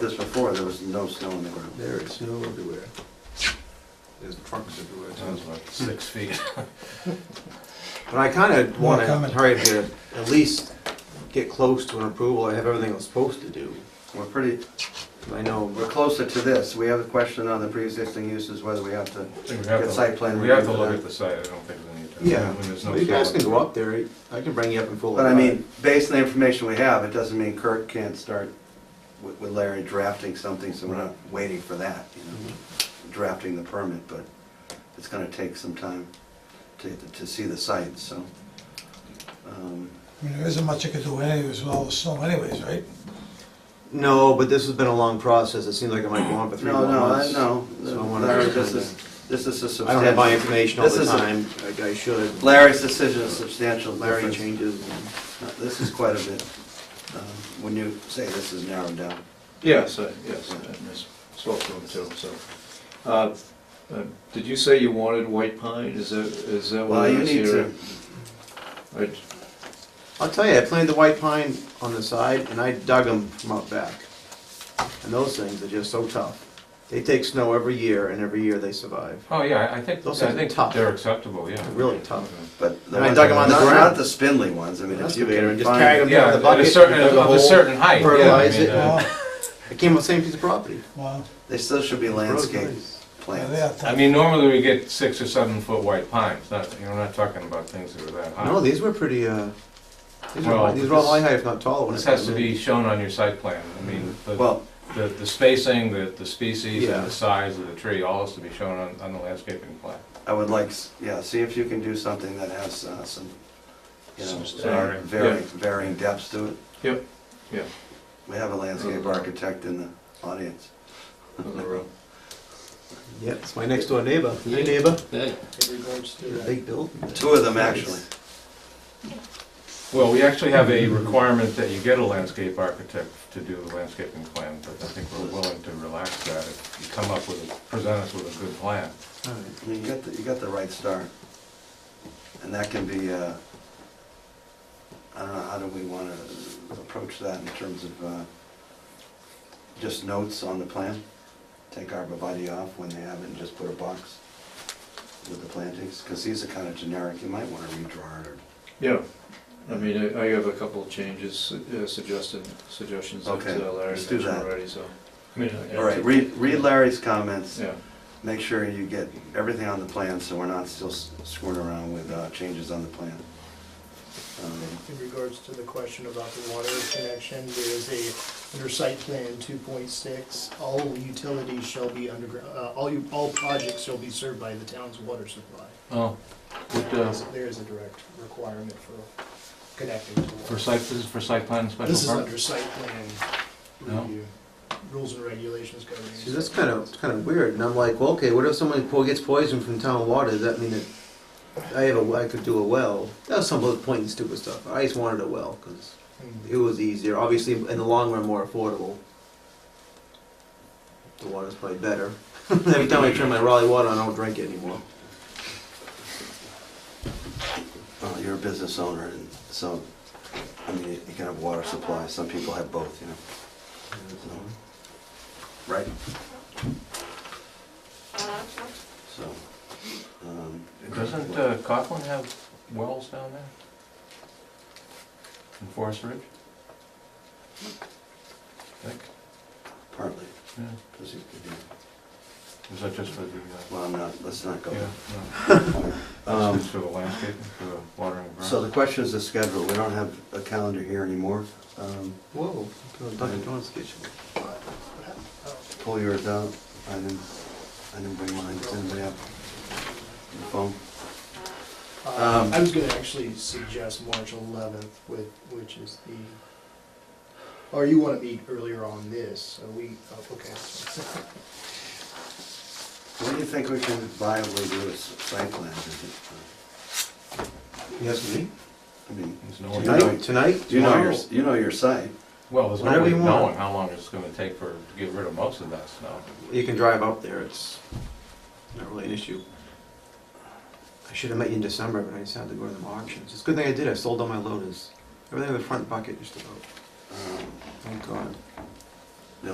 This before, there was no snow on the ground. There is snow everywhere. There's trucks everywhere. That was too. about six feet. But I kind of want to comment. hurry to at least get close to an approval. I have everything I'm supposed to do. We're pretty, I know, we're closer to this. We have a question on the pre-existing uses, whether we have to, I think we have Get to- site plan We have to review for look that. at the site, I don't think we need to. yeah, When there's no Well, you guys solar. can go up there. I can bring you up and full. but I mean, based on the information we have, it doesn't mean Kirk can't start with with Larry drafting something, so we're not waiting for that, you know, drafting the permit, but it's gonna take some time to, to see the site, so. um, I mean, there isn't much you could do anyways with all the snow anyways, right? No, but this has been a long process. It seems like it might go on for three No, more no, I, months. no, So I wanna- Larry, this is, this is a substantial. I don't have my information all This the is a- time. like I should. Larry's decision is substantial Larry difference. changes. and- Uh, This is quite a bit, um, when you say this is narrowed down. Yes, uh, yes, and there's spoke to him too, so. Uh, uh, Did you say you wanted white pine, is that, is that Well, what it you is need here? to, I- I'll tell you, I planted the white pine on the side and I dug them from out back. And those things are just so tough. They take snow every year and every year they survive. Oh, yeah, I- I think, Those I things are think tough. they're acceptable, yeah. Really tough. but the And I ones, dug 'em on not the not ground. the spindly ones, I mean, if you Excavator can and just carried find. 'em. Yeah, Yeah, the at a bucket, certain, you dug a of a hole, certain height, yeah. I fertilize mean, it. uh, Wow, I came on the same piece of property. wow. They still should be landscape Yeah, plants. they Oh, are I tough. mean, normally we get six or seven foot white pines, not, you know, we're not talking about things that are that high. No, these were pretty, uh, these were, Well, high- these were all high this- height, if not tall. when This I has to came be in. shown on your site plan, I mean, the, Well, the the spacing, the, the species Yeah. and the size of the tree, all has to be shown on, on the landscaping plan. I would like, s- yeah, see if you can do something that has uh, some, you know, Some var- standard, varying, yeah. varying depths to it. Yep, yeah. We have a landscape Mhm. architect in the audience. Yeah, it's my next door neighbor. Hey neighbor. Big building. Two of them, actually. Well, we actually have a requirement that you get a landscape architect to do the landscaping plan, but I think we're willing to relax that if you come up with, a- present us with a good plan. All right. I mean, You got, the- you got the right start. And that can be, uh, I don't know, how do we want to approach that in terms of uh, just notes on the plan? Take arborvitae off when they have it and just put a box with the plantings? Because these are kind of generic, you might want to redraw it or, Yeah, I mean, I I have a couple of changes, uh, suggested, suggestions that Okay, uh, Larry let's do mentioned that. already, so. I mean, I- all right, read read Larry's comments. Yeah, Make sure you get everything on the plan so we're not still s- screwing around with uh, changes on the plan. Um, In regards to the question about the water connection, there is a, under site plan two point six, all utilities shall be underground, uh, all you, all projects shall be served by the town's water supply. Oh, what, uh, There is a direct requirement for connecting to for water. site, this is for site plan and This is special permit? under site plan No. review, rules and regulations governing. See, that's kind of, it's kind of weird. And I'm like, well, okay, what if someone po- gets poisoned from town water? Does that mean that I have a, I could do a well? That was some of the point and stupid stuff. I just wanted a well because Mm. it was easier. Obviously, in the long run, more affordable. The water's probably better. Every time I turn my Raleigh water on, I don't drink it anymore. Well, you're a business owner, and so, I mean, you can have water supply, some people have both, you know, so, right? So, um, Doesn't uh, Coughlin have wells down there? In Forest Ridge? I think, partly, yeah, because it could be, is that just for the, uh, well, I'm not, let's not go. yeah, there. no, Um, it's for the landscaping, for the watering ground? So the question is the schedule, we don't have a calendar here anymore. Um, Whoa, Dunkin' Donuts kitchen. Oh. Pull yours out, I didn't, I didn't bring mine, does anybody have the phone? Uh, um, I was gonna actually suggest March eleventh with, which is the, or you wanna meet earlier on this, so we, oh, okay. What do you think we can viably do as site plans? Is it, Yes, me. uh, I mean, There's no one- Tonight, tonight, you know your, tomorrow. you know your site. Well, there's no Whatever way you want. knowing how long it's gonna take for, to get rid of most of that snow. You can drive up there, it's not really an issue. I should have met you in December, but I just had to go to the auctions. It's a good thing I did, I sold all my loaders. Everything in the front bucket just about, Um, oh, thank God.